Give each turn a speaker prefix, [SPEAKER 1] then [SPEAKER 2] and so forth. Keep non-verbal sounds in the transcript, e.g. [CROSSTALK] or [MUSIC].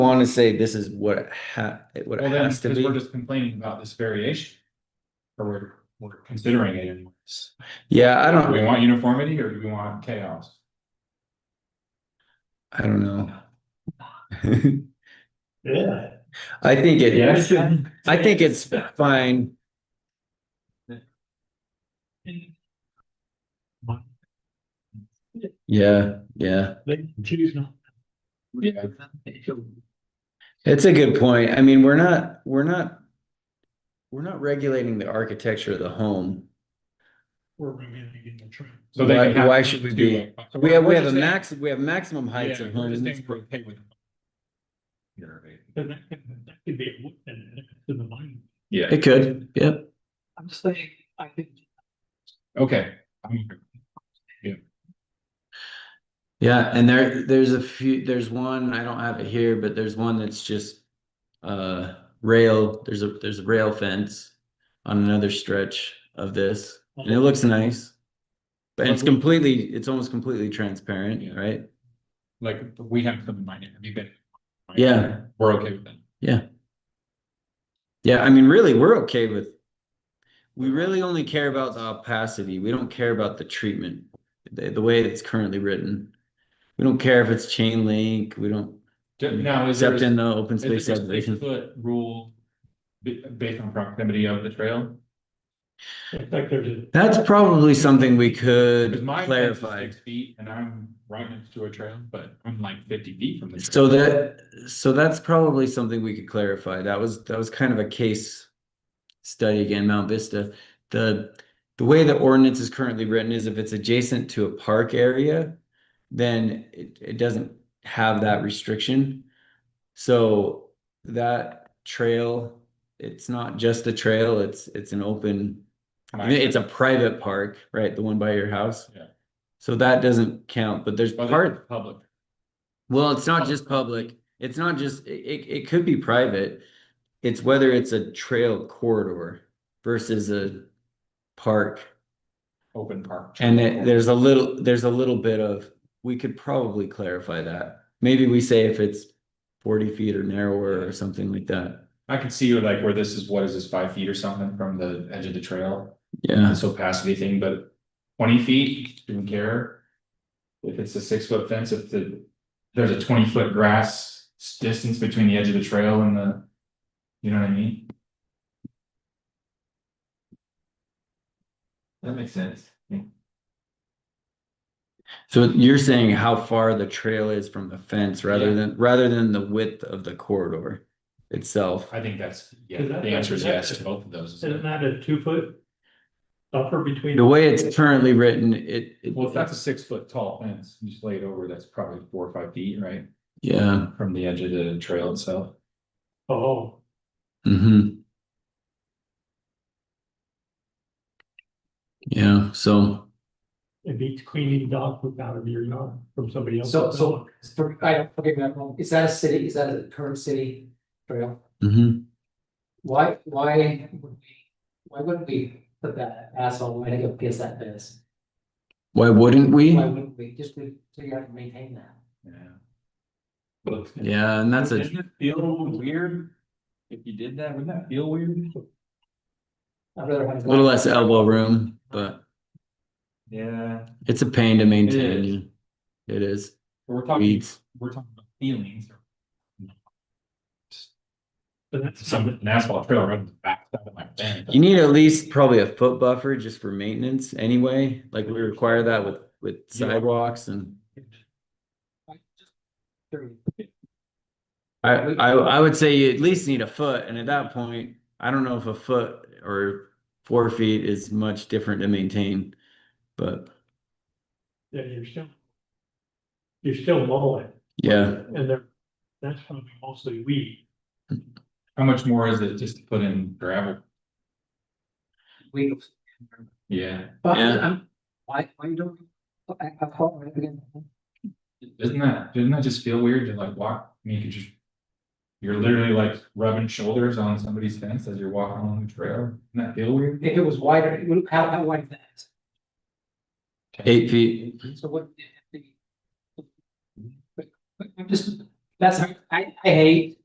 [SPEAKER 1] want to say this is what it ha, what
[SPEAKER 2] Well,
[SPEAKER 1] it
[SPEAKER 2] then,
[SPEAKER 1] has to
[SPEAKER 2] because we're
[SPEAKER 1] be.
[SPEAKER 2] just complaining about this variation. Or we're, we're considering it anyways.
[SPEAKER 1] Yeah, I
[SPEAKER 2] Do we
[SPEAKER 1] don't,
[SPEAKER 2] want uniformity or do we want chaos?
[SPEAKER 1] I don't know.
[SPEAKER 3] Yeah.
[SPEAKER 1] [LAUGHS] I think it,
[SPEAKER 2] Yes.
[SPEAKER 1] I think it's fine. Yeah, yeah.
[SPEAKER 3] They can choose not.
[SPEAKER 2] Yeah.
[SPEAKER 1] It's a good point. I mean, we're not, we're not. We're not regulating the architecture of the home.
[SPEAKER 3] We're regulating the trend.
[SPEAKER 2] So they can
[SPEAKER 1] Why-
[SPEAKER 2] have.
[SPEAKER 1] why should we be-
[SPEAKER 2] do- so
[SPEAKER 1] We have, we
[SPEAKER 2] we're
[SPEAKER 1] have a
[SPEAKER 2] just saying-
[SPEAKER 1] max, we have maximum heights
[SPEAKER 2] Yeah,
[SPEAKER 1] of
[SPEAKER 2] we're
[SPEAKER 1] homes.
[SPEAKER 2] just saying we're okay with it. You're right.
[SPEAKER 3] But that could, that could be a look at it to the mind.
[SPEAKER 2] Yeah,
[SPEAKER 1] It could, yep.
[SPEAKER 4] I'm saying, I think,
[SPEAKER 2] okay. I'm-
[SPEAKER 1] Yeah, and there, there's a few, there's one, I don't have it here, but there's one that's just. Uh, rail, there's a, there's a rail fence on another stretch of this, and it looks nice. But it's completely, it's almost completely transparent,
[SPEAKER 2] Yeah.
[SPEAKER 1] right?
[SPEAKER 2] Like, we have some in mind, have you been?
[SPEAKER 1] Yeah.
[SPEAKER 2] We're okay with that.
[SPEAKER 1] Yeah, I mean, really, we're okay with. We really only care about the opacity. We don't care about the treatment, the, the way it's currently written. We don't care if it's chain link, we don't,
[SPEAKER 2] Ju- Now, is there,
[SPEAKER 1] except
[SPEAKER 2] is
[SPEAKER 1] in the open
[SPEAKER 2] there a
[SPEAKER 1] space subdivision.
[SPEAKER 2] six-foot rule ba- based on proximity of the trail?
[SPEAKER 3] In fact, there's a.
[SPEAKER 1] That's probably something we could
[SPEAKER 2] Because my fence is
[SPEAKER 1] clarify.
[SPEAKER 2] six feet and I'm right next to a trail, but I'm like fifty feet from the. trail.
[SPEAKER 1] So that, so that's probably something we could clarify. That was, that was kind of a case study again, Mount Vista. The, the way the ordinance is currently written is if it's adjacent to a park area, then it, it doesn't have that restriction. So that trail, it's not just a trail, it's, it's an open, I mean, it's a private park, right? The one by your house.
[SPEAKER 2] Yeah.
[SPEAKER 1] So that doesn't count, but there's
[SPEAKER 2] But it's
[SPEAKER 1] part.
[SPEAKER 2] Public.
[SPEAKER 1] Well, it's not just public, it's not just, it, it, it could be private. It's whether it's a trail corridor versus a park.
[SPEAKER 2] open park.
[SPEAKER 1] And it- there's a little, there's a little bit of, we could probably clarify that. Maybe we say if it's forty feet or narrower or something like that.
[SPEAKER 2] I could see like where this is, what is this, five feet or something from the edge of the trail,
[SPEAKER 1] Yeah,
[SPEAKER 2] this opacity thing, but twenty feet, didn't care. If it's a six foot fence, if the, there's a twenty foot grass s- distance between the edge of the trail and the, you know what I mean? That makes sense.
[SPEAKER 1] so you're saying how far the trail is from the fence rather
[SPEAKER 2] Yeah.
[SPEAKER 1] than, rather than the width of the corridor itself.
[SPEAKER 2] I think that's, yeah,
[SPEAKER 3] Is that-
[SPEAKER 2] the answer is yes to both of those. isn't
[SPEAKER 3] Isn't
[SPEAKER 2] it?
[SPEAKER 3] that a two foot? Buffer between?
[SPEAKER 1] The way it's currently written, it. it-
[SPEAKER 2] Well, if that's a six foot tall fence, you just lay it over, that's probably four or five feet, right?
[SPEAKER 1] Yeah,
[SPEAKER 2] From the edge of the trail itself.
[SPEAKER 3] Oh,
[SPEAKER 1] hmm Yeah, so.
[SPEAKER 3] it beats cleaning dog poop out of your yard from somebody else.
[SPEAKER 5] So, so, for- I don't, forgive me, I'm wrong, is that a city, is that a current city trail?
[SPEAKER 1] mhm.
[SPEAKER 5] Why, why would we, why wouldn't we put that asphalt lining up against that fence?
[SPEAKER 1] Why wouldn't we?
[SPEAKER 5] Why wouldn't we, just to figure out and maintain that?
[SPEAKER 2] Yeah.
[SPEAKER 1] Yeah, and that's a,
[SPEAKER 2] Doesn't it feel weird? If you did that, wouldn't that feel weird?
[SPEAKER 5] I'd rather have.
[SPEAKER 1] a little less elbow room, but
[SPEAKER 2] Yeah.
[SPEAKER 1] it's a pain to
[SPEAKER 2] It is.
[SPEAKER 1] maintain. It is.
[SPEAKER 2] We're talking,
[SPEAKER 1] Weeds.
[SPEAKER 2] we're talking about feelings. or
[SPEAKER 3] But that's
[SPEAKER 2] Some an asphalt trail right in the back side of my fence.
[SPEAKER 1] You need at least probably a foot buffer just for maintenance anyway, like we require that with, with
[SPEAKER 2] Yeah.
[SPEAKER 1] sidewalks and.
[SPEAKER 5] Sure.
[SPEAKER 1] I, I, I would say you at least need a foot, and at that point, I don't know if a foot or four feet is much different to maintain. But
[SPEAKER 3] Yeah, you're still. You're still mowing
[SPEAKER 1] yeah,
[SPEAKER 3] and they're, that's probably mostly weed.
[SPEAKER 2] How much more is it just to put in gravel?
[SPEAKER 5] We,
[SPEAKER 2] Yeah,
[SPEAKER 5] but
[SPEAKER 1] Yeah.
[SPEAKER 5] I'm, why, why you don't, I, I call right again.
[SPEAKER 2] doesn't that, doesn't that just feel weird to like walk, I mean, you could just. You're literally like rubbing shoulders on somebody's fence as you're walking along the trail, doesn't that feel weird?
[SPEAKER 5] If it was wider, it would- how, how wide is that?
[SPEAKER 1] eight feet. Mm-hmm.
[SPEAKER 5] So what? if the- But, but I'm just, That's, I, I hate